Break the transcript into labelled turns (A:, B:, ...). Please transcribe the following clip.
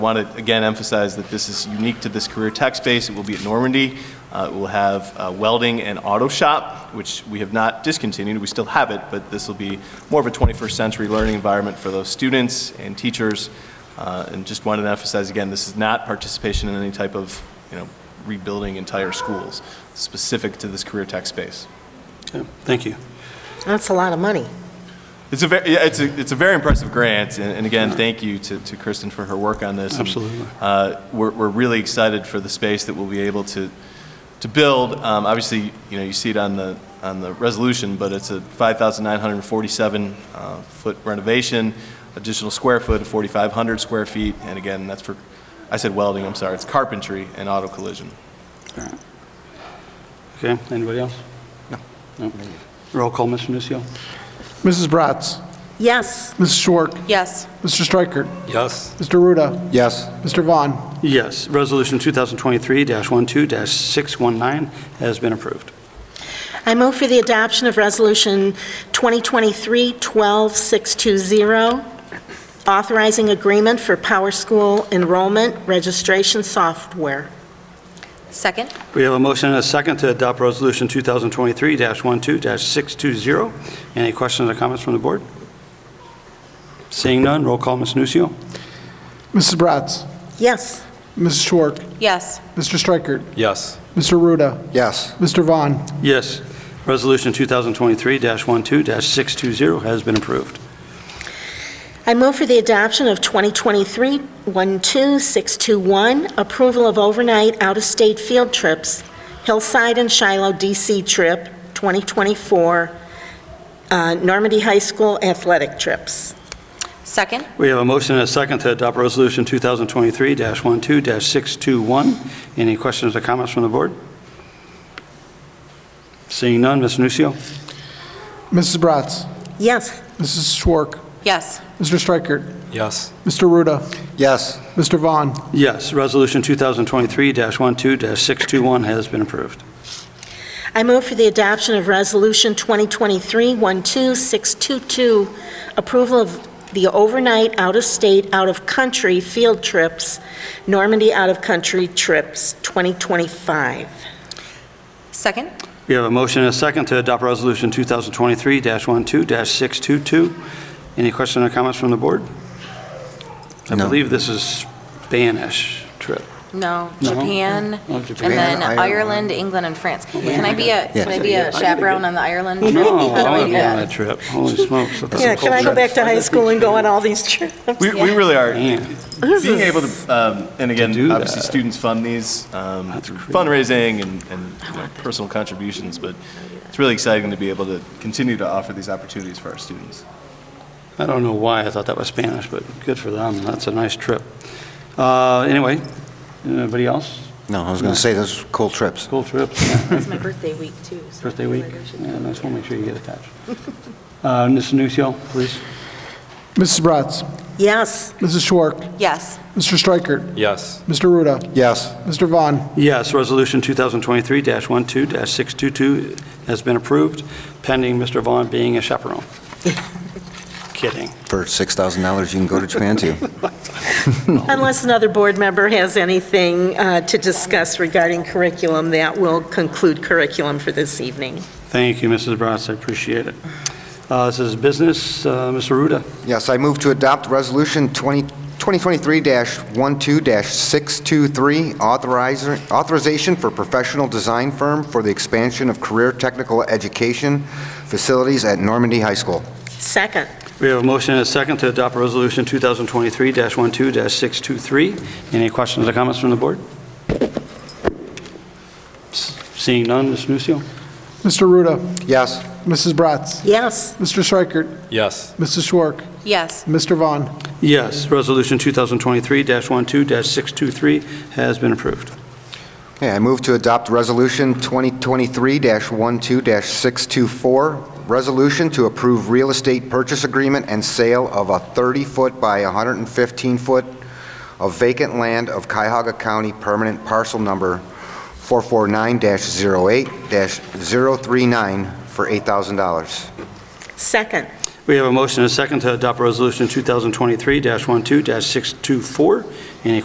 A: Want to again emphasize that this is unique to this career tech space. It will be at Normandy. Uh, It will have uh, welding and auto shop, which we have not discontinued. We still have it, but this will be more of a 21st century learning environment for those students and teachers. Uh, And just wanted to emphasize again, this is not participation in any type of, you know, rebuilding entire schools, specific to this career tech space.
B: Okay, Thank you.
C: That's a lot of money.
A: It's a, ve- yeah, it's a, it's a very impressive grant, and and again, thank you to, to Kristen for her work on this. And,
B: Absolutely.
A: uh, We're, we're really excited for the space that we'll be able to, to build. Um, Obviously, you know, you see it on the, on the resolution, but it's a 5,947 uh, foot renovation, additional square foot of 4,500 square feet, and again, that's for, I said welding, I'm sorry, it's carpentry and auto collision.
B: All right. Okay, anybody else? No. Roll call, Mr. Nucio.
D: Mrs. Bratz.
C: Yes,
D: Mrs. Schwark.
E: Yes.
D: Mr. Striker.
B: Yes.
D: Mr. Ruda.
F: Yes.
D: Mr. Vaughn.
B: Yes, Resolution 2023-12-619 has been approved.
C: I move for the adoption of Resolution 2023-12620, authorizing agreement for Power School enrollment registration software.
E: Second?
B: We have a motion and a second to adopt Resolution 2023-12-620. Any questions or comments from the board? Seeing none, roll call, Mr. Nucio.
D: Mrs. Bratz.
C: Yes,
D: Mrs. Schwark.
E: Yes.
D: Mr. Striker.
F: Yes.
D: Mr. Ruda.
F: Yes.
D: Mr. Vaughn.
B: Yes, Resolution 2023-12-620 has been approved.
C: I move for the adoption of 2023-12621, approval of overnight out-of-state field trips, Hillside and Shiloh DC trip, 2024, uh, Normandy High School athletic trips.
E: Second?
B: We have a motion and a second to adopt Resolution 2023-12-621. Any questions or comments from the board? Seeing none, Mr. Nucio.
D: Mrs. Bratz.
C: Yes,
D: Mrs. Schwark.
E: Yes.
D: Mr. Striker.
F: Yes.
D: Mr. Ruda.
F: Yes.
D: Mr. Vaughn.
B: Yes, Resolution 2023-12-621 has been approved.
C: I move for the adoption of Resolution 2023-12622, approval of the overnight, out-of-state, out-of-country field trips, Normandy out-of-country trips, 2025.
E: Second?
B: We have a motion and a second to adopt Resolution 2023-12-622. Any questions or comments from the board? I believe this is Spanish trip.
E: No.
B: No.
E: Japan,
B: Oh,
E: and
B: Japan, Oh,
E: then
F: Ireland.
E: Ireland, England, and France. Can I be a, can I be a chaperone on the Ireland trip?
B: No, I
E: How do I
B: want to
E: do
B: be on that
E: that?
B: trip. Holy smokes. that's a
C: Yeah, can I go
B: culture.
C: back to high school and go on all these trips?
A: We, we really are,
B: Yeah.
A: being able to, um, and
B: do
A: again,
B: that.
A: obviously, students fund these, um,
B: That's
A: through
B: great.
A: fundraising and, and you know, personal contributions, but it's really exciting to be able to continue to offer these opportunities for our students.
B: I don't know why I thought that was Spanish, but good for them. That's a nice trip. Uh, Anyway, anybody else?
F: No, I was going to say, those cool trips.
B: Cool trips, yeah.
E: It's my birthday week, too. so
B: birthday
E: I feel
B: week.
E: like I should
B: Yeah,
E: go.
B: nice one. Make sure you get attached. Uh, Mr. Nucio, please.
D: Mrs. Bratz.
C: Yes,
D: Mrs. Schwark.
E: Yes.
D: Mr. Striker.
F: Yes.
D: Mr. Ruda.
F: Yes.
D: Mr. Vaughn.
B: Yes, Resolution 2023-12-622 has been approved, pending Mr. Vaughn being a chaperone. Kidding.
F: For $6,000, you can go to Japan, too.
C: unless another board member has anything uh, to discuss regarding curriculum, that will conclude curriculum for this evening.
B: Thank you, Mrs. Bratz, I appreciate it. Uh, This is business, Uh, Mr. Ruda.
F: Yes, I move to adopt Resolution 20 2023-12-623, authorizer- authorization for professional design firm for the expansion of career technical education facilities at Normandy High School.
C: Second,
B: We have a motion and a second to adopt Resolution 2023-12-623. Any questions or comments from the board? S- Seeing none, Mr. Nucio.
D: Mr. Ruda.
F: Yes.
D: Mrs. Bratz.
C: yes,
D: Mr. Striker.
F: Yes.
D: Mrs. Schwark.
E: Yes.
D: Mr. Vaughn.
B: Yes, Resolution 2023-12-623 has been approved.
F: Okay, I move to adopt Resolution 2023-12-624, resolution to approve real estate purchase agreement and sale of a 30-foot by 115-foot of vacant land of Cuyahoga County permanent parcel number 449-08-039 for $8,000.
C: second,
B: We We have a motion and a second to adopt Resolution 2023-12-624. Any